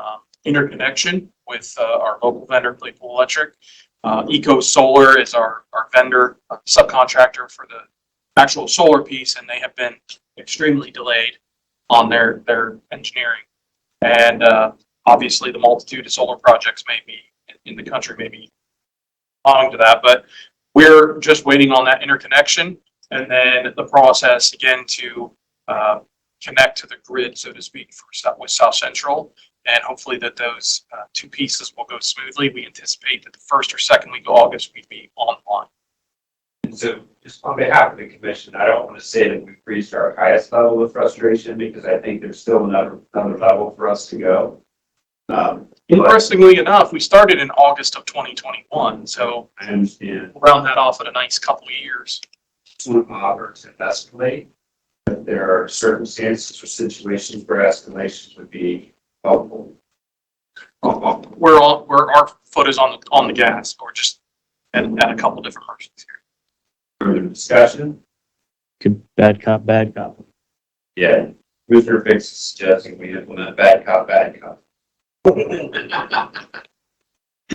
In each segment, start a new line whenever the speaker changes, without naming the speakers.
um, interconnection with uh, our local vendor, Claypool Electric. Uh, Eco Solar is our, our vendor uh, subcontractor for the actual solar piece, and they have been extremely delayed on their, their engineering. And uh, obviously, the multitude of solar projects may be, in the country may be owing to that, but we're just waiting on that interconnection and then the process again to uh, connect to the grid, so to speak, for South, with South Central. And hopefully that those uh, two pieces will go smoothly. We anticipate that the first or second week of August, we'd be online.
And so just on behalf of the commission, I don't want to say that we've reached our highest level of frustration because I think there's still another, another level for us to go. Um,
Interestingly enough, we started in August of 2021, so
I understand
we'll round that off at a nice couple of years.
some powers and escalate. But there are circumstances or situations where escalations would be helpful. Um,
We're all, we're, our foot is on the, on the gas, or just at, at a couple different merchants here.
Further discussion?
Good, bad cop, bad cop.
Yeah. Commissioner Fix is suggesting we implement bad cop, bad cop.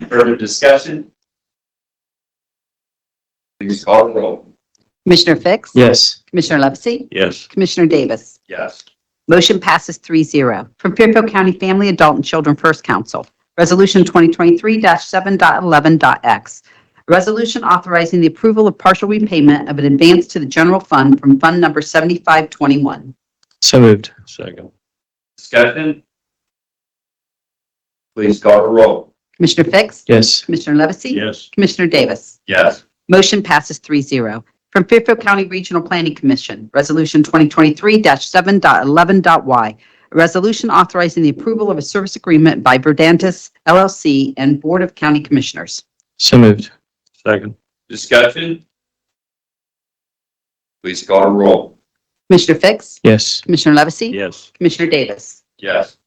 Further discussion? Please call the roll.
Commissioner Fix?
Yes.
Commissioner Levesey?
Yes.
Commissioner Davis?
Yes.
Motion passes 3-0. From Fairfield County Family, Adult, and Children First Council, Resolution 2023-7.11.x. A Resolution authorizing the approval of partial repayment of an advance to the general fund from Fund Number 7521.
So moved.
Second. Discussion? Please call the roll.
Commissioner Fix?
Yes.
Commissioner Levesey?
Yes.
Commissioner Davis?
Yes.
Motion passes 3-0. From Fairfield County Regional Planning Commission, Resolution 2023-7.11.y, a resolution authorizing the approval of a service agreement by Verdantis LLC and Board of County Commissioners.
So moved.
Second. Discussion? Please call the roll.
Commissioner Fix?
Yes.
Commissioner Levesey?
Yes.
Commissioner Davis?
Yes.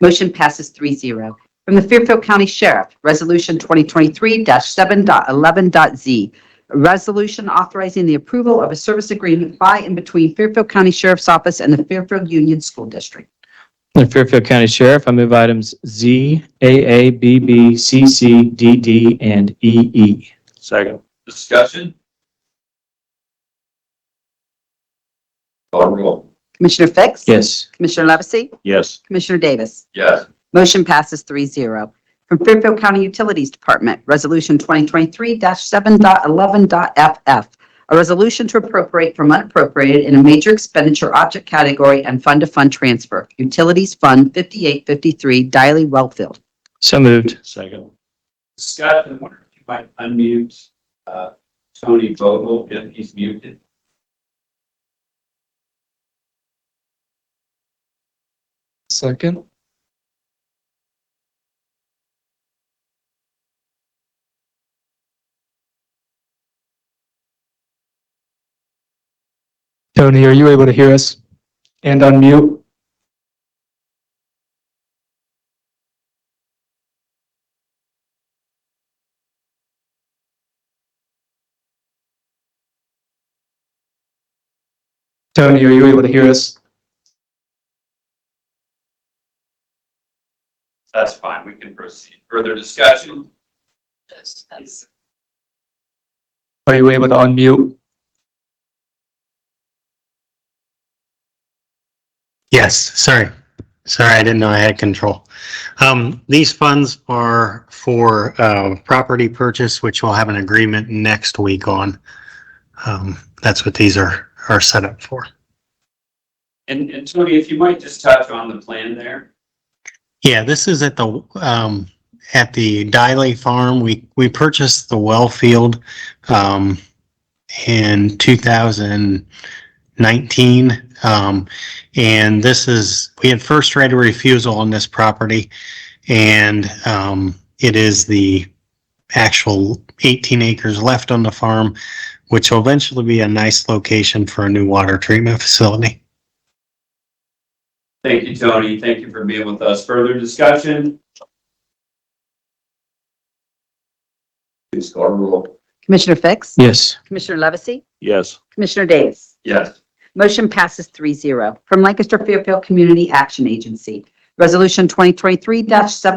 Motion passes 3-0. From the Fairfield County Sheriff, Resolution 2023-7.11.z, a resolution authorizing the approval of a service agreement by and between Fairfield County Sheriff's Office and the Fairfield Union School District.
The Fairfield County Sheriff, I move items Z, AA, BB, CC, DD, and E EE.
Second. Discussion? Call the roll.
Commissioner Fix?
Yes.
Commissioner Levesey?
Yes.
Commissioner Davis?
Yes.
Motion passes 3-0. From Fairfield County Utilities Department, Resolution 2023-7.11.FF, a resolution to appropriate from unappropriated in a major expenditure object category and fund-to-fund transfer, Utilities Fund 5853, Diley Wellfield.
So moved.
Second. Scott, I wonder if you might unmute, uh, Tony Vogel if he's muted.
Second.
Tony, are you able to hear us and unmute? Tony, are you able to hear us?
That's fine. We can proceed. Further discussion?
Are you able to unmute?
Yes, sorry. Sorry, I didn't know I had control. Um, these funds are for, uh, property purchase, which we'll have an agreement next week on. Um, that's what these are, are set up for.
And, and Tony, if you might just touch on the plan there.
Yeah, this is at the, um, at the Diley Farm. We, we purchased the well field, um, in two thousand nineteen. Um, and this is, we had first right of refusal on this property. And, um, it is the actual eighteen acres left on the farm, which will eventually be a nice location for a new water treatment facility.
Thank you, Tony. Thank you for being with us. Further discussion? Please call the roll.
Commissioner Fix?
Yes.
Commissioner Levesey?
Yes.
Commissioner Davis?
Yes.
Motion passes 3-0. From Lancaster Fairfield Community Action Agency, Resolution 2023-7.